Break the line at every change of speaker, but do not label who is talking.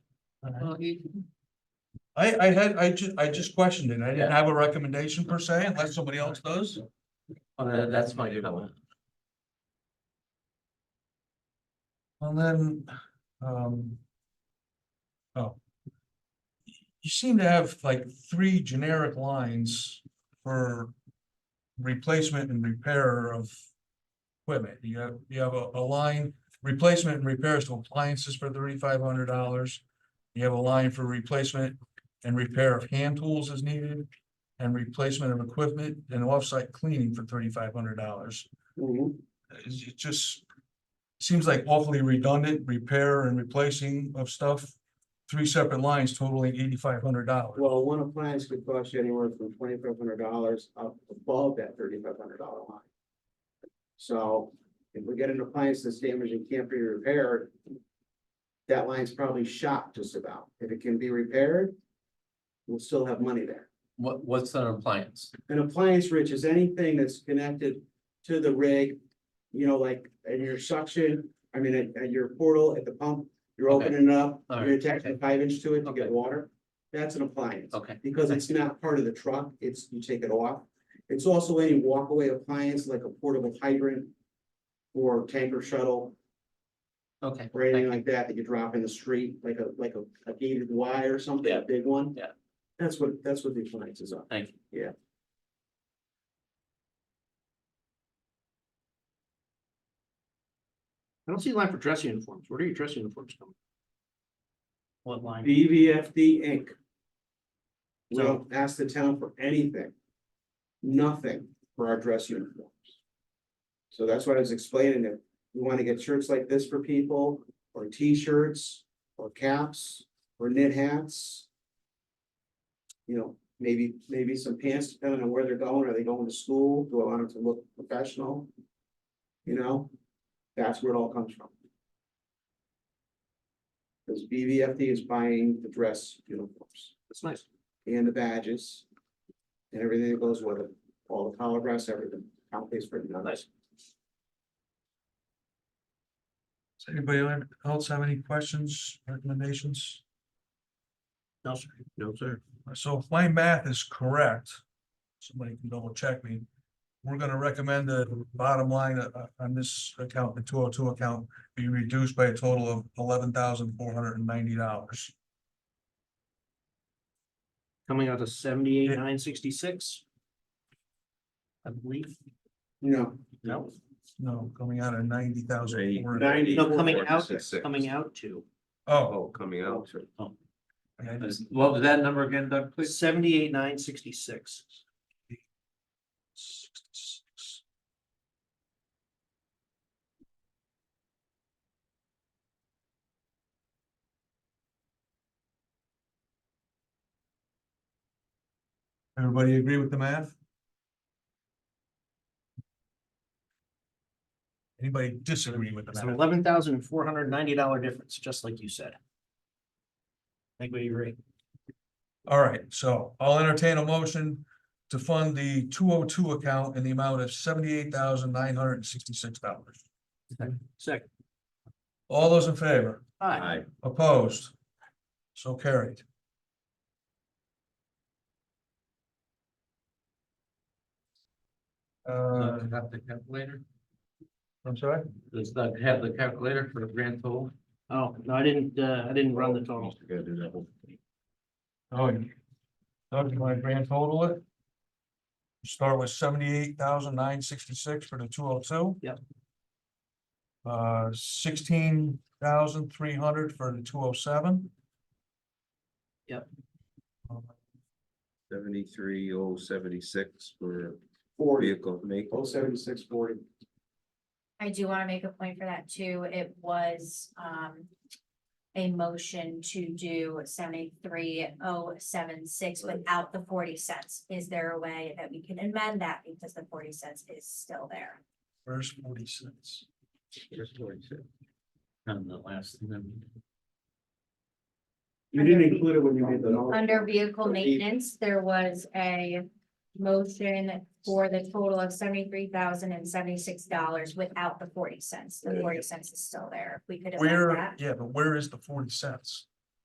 Alright.
Well, you-
I, I had, I ju- I just questioned it. I didn't
Yeah.
have a recommendation per se, unless somebody else does.
Uh, That's my comment.
And then, um. Oh. You seem to have like three generic lines for. Replacement and repair of. Equipment, you have, you have a, a line, replacement and repairs to appliances for thirty-five hundred dollars. You have a line for replacement and repair of hand tools as needed. And replacement of equipment and off-site cleaning for thirty-five hundred dollars
Mm-hmm.
it's- it just seems like awfully redundant, repair and replacing of stuff. Three separate lines totaling eighty-five hundred dollars.
Well, one appliance could cost you anywhere from twenty-five hundred dollars up above that thirty-five hundred dollar line. So if we get an appliance that's damaged and can't be repaired, that line's probably shot just about. If it can be repaired, we'll still have money there.
What, what's an appliance?
An appliance, Rich, is anything that's connected to the rig, you know, like in your suction, I mean, at, at your portal, at the pump, you're
Okay.
opening it up,
All
you're
right,
attaching a
okay.
five inch to it to
Okay.
get water. That's an appliance.
Okay,
Because it's not part of the truck, it's, you take it off. It's also any walkaway appliance like a portable hydrant. Or tanker shuttle
okay.
or anything like that that you drop in the street, like a, like a, a gated Y or something, a
Yeah.
big one.
Yeah.
That's what, that's what the appliances are.
Thank you.
I don't see a line for dress uniforms. Where do your dress uniforms come?
What line?
BVFD Inc. We
So-
don't ask the town for anything. Nothing for our dress uniforms. So that's why I was explaining that we want to get shirts like this for people, or T-shirts, or caps, or knit hats. You know, maybe, maybe some pants, depending on where they're going. Are they going to school? Do I want them to look professional? You know, that's where it all comes from. Because BVFD is buying the dress uniforms
That's nice.
and the badges. And everything that goes with it, all the collar brass, everything, town pays for it. none of it.
Does anybody else have any questions, recommendations?
No, sir. No, sir.
So if my math is correct, somebody can double check me. We're gonna recommend the bottom line uh, on this account, the two oh two account, be reduced by a total of eleven thousand four hundred and ninety dollars.
Coming out to seventy-eight, nine sixty-six. I believe,
No,
no,
No, coming out of ninety thousand.
ninety.
no, coming out,
46.
coming out to
Oh,
Oh, coming out.
Oh,
okay.
What was that number again, Doug, please?
seventy-eight, nine sixty-six.
Everybody agree with the math? Anybody disagree with the
It's an
math?
eleven thousand four hundred ninety dollar difference, just like you said. I think we agree.
All right, so I'll entertain a motion to fund the two oh two account in the amount of seventy-eight thousand nine hundred and sixty-six dollars.
Second.
All those in favor?
Aye.
Aye.
Opposed? So carried. Uh,
Doug have the calculator?
I'm sorry?
Does Doug have the calculator for the grand total?
Oh, no, I didn't, uh, I didn't run the total.
Gotta do that one.
Oh, you. Doug, you want to grand total it? Start with seventy-eight thousand nine sixty-six for the two oh two.
Yep.
Uh, sixteen thousand three hundred for the two oh seven.
Yep.
Seventy-three oh seventy-six for
Forty,
vehicle make.
oh seventy-six forty.
I do wanna make a point for that too. It was, um. A motion to do seventy-three oh seven six without the forty cents. Is there a way that we can amend that because the forty cents is still there?
First forty cents.
And the last thing. then.
You didn't include it when you made the. note.
Under vehicle
So eight-
maintenance, there was a motion for the total of seventy-three thousand and seventy-six dollars without the forty cents. The forty cents is still there. If We could amend
Where,
that.
yeah, but where is the forty cents?